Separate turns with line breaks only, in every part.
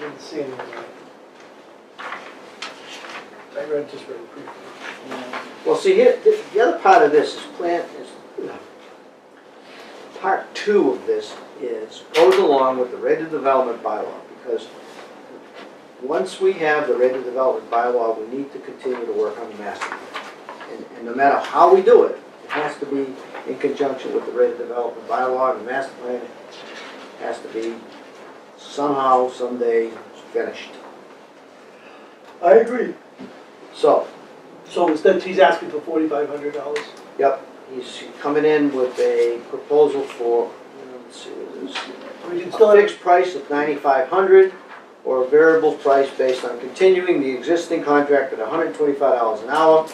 didn't see any of that. I read just very briefly.
Well, see, here, the, the other part of this is plan, is, part two of this is, goes along with the rate of development bylaw, because once we have the rate of development bylaw, we need to continue to work on the master plan. And, and no matter how we do it, it has to be in conjunction with the rate of development bylaw, and the master plan has to be somehow, someday finished.
I agree.
So,
So instead, he's asking for forty-five hundred dollars.
Yep, he's coming in with a proposal for, let's see, what it is.
We can still
A
have,
fixed price of ninety-five hundred or a variable price based on continuing the existing contract at hundred and twenty-five dollars an hour.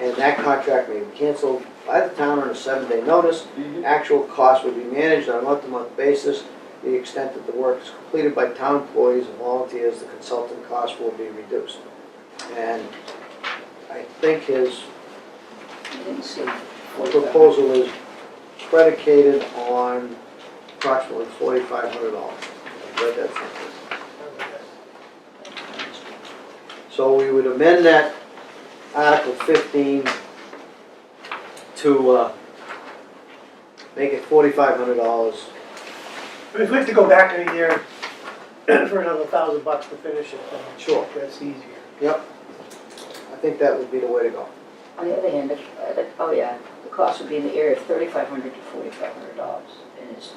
And that contract may be canceled by the town on a seven-day notice. Actual cost would be managed on a month-to-month basis. The extent that the work is completed by town employees and volunteers, the consultant cost will be reduced. And I think his proposal is predicated on approximately forty-five hundred dollars. Read that sentence. So we would amend that Article fifteen to, uh, make it forty-five hundred dollars.
if we have to go back in a year for another thousand bucks to finish it, then
Sure.
that's easier.
I think that would be the way to go.
On the other hand, if, uh, the- oh yeah, the cost would be in the area of thirty-five hundred to forty-five hundred dollars in his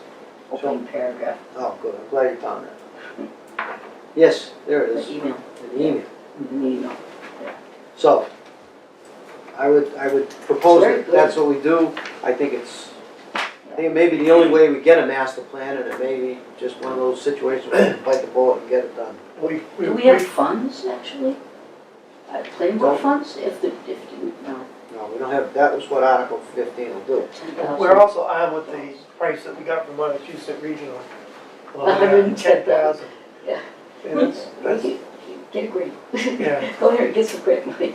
opening paragraph,
Oh, good, I'm glad you found that. Yes, there it
the
is,
email,
an email.
the email.
So, I would, I would propose
Very
that
good.
that's what we do. I think it's, I think it may be the only way we get a master plan, and it may be just one of those situations where we bite the bullet and get it done.
We, we,
Do we
we,
have funds, actually? Uh, Planning board funds, if the, if, the- no,
No, we don't have, that was what Article fifteen will do.
ten thousand.
we're also on with the price that we got from Massachusetts Regional.
$110,000. Yeah.
And that's, that's,
Get a grant.
Yeah.
Go ahead and get some grant money.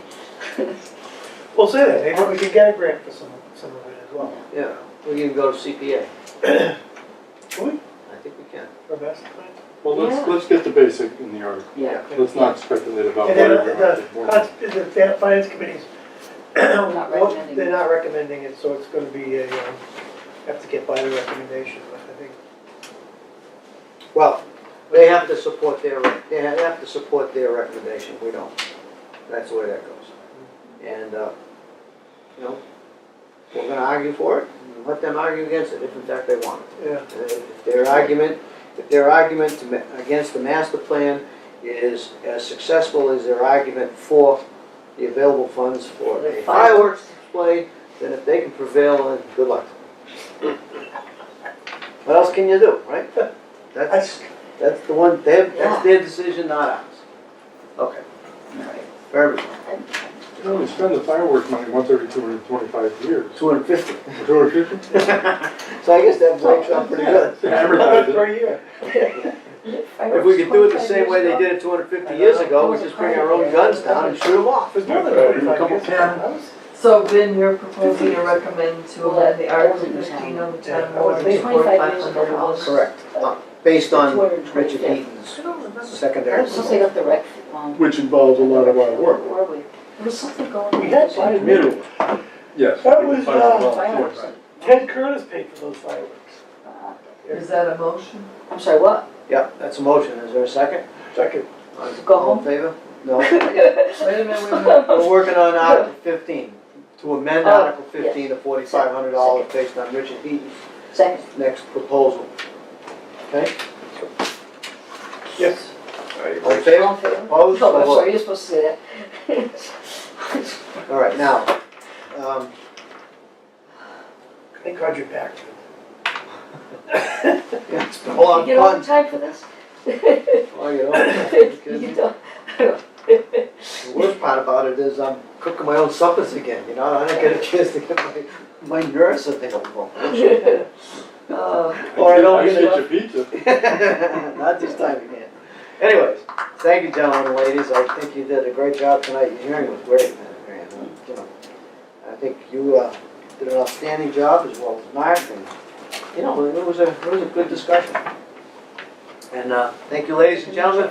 we'll say that, maybe we can get a grant for some, some of it as well.
Yeah, we can go to CPA.
Can we?
I think we can.
For master plan?
Well,
Yeah.
let's, let's get the basic in the article.
Yeah.
Let's not speculate about
And then uh,
where we're
the-
at.
That's, the fin- finance committees, what,
recommending
they're
it.
not recommending it, so it's gonna be a, um, have to get by the recommendation, but I think.
Well, they have to support their, they ha- have to support their recommendation, we don't. That's the way that goes. And, uh, you know, we're gonna argue for it, and let them argue against it, if in fact they want
Yeah,
it. Uh, If their argument, if their argument to ma- against the master plan is as successful as their argument for the available funds for a fireworks display, then if they can prevail, then good luck. What else can you do, right? That's,
that's,
that's the one, they- that's their decision, not ours. Okay,
All right.
very good.
You can only spend the fireworks money once every two hundred and twenty-five years.
Two hundred fifty.
Two hundred fifty?
So I guess that breaks up pretty good.
Advertise it.
per year.
If we could do it the same way they did it two hundred fifty years ago, we just bring our own guns down and shoot them off.
It was more than
Yeah,
twenty-five
Uh, couple
years.
ten.
I was-
So then you're proposing to recommend to amend the Article fifteen on the town warrant to
Twenty-five
forty-five
years
hundred
ago.
dollars?
Correct. Uh, Based on Richard Eaton's
I don't remember.
secondary.
Since they got the rec, um.
Which involves a lot of our work.
Where were we? There was something going on.
We had five minutes.
Middle.
Yes.
That
we can
was,
find out
uh,
about it.
Fireworks.
Ted Curtis paid for those fireworks.
Uh,
Is that a motion?
I'm sorry, what?
Yep, that's a motion. Is there a second?
Second,
To go
All in
home?
favor? No. Wait a minute, wait a minute. We're working on Article fifteen, to amend
Oh,
Article fifteen to forty-five hundred dollars based on Richard Eaton's
Second.
next proposal. Okay?
yes.
All in
All
favor?
in favor?
Opposed?
Oh, I'm
Vote.
sorry, you're supposed to say that.
All right, now, um,
Thank God you're back.
yeah, it's been a lot
You
of
get all the
fun.
time for this?
Oh, you know, you
You
kidding
get
me?
all-
The worst part about it is I'm cooking my own suppers again, you know, I don't get a chance to get my, my nerves available.
Oh,
Or I don't
I
get
can
enough
get your pizza.
Not this time again. Anyways, thank you, gentlemen and ladies, I think you did a great job tonight, your hearing was great, man, Mary Ann. Uh, you know, I think you, uh, did an outstanding job as well as Mark, and, you know, it was a, it was a good discussion. And, uh, thank you, ladies and gentlemen.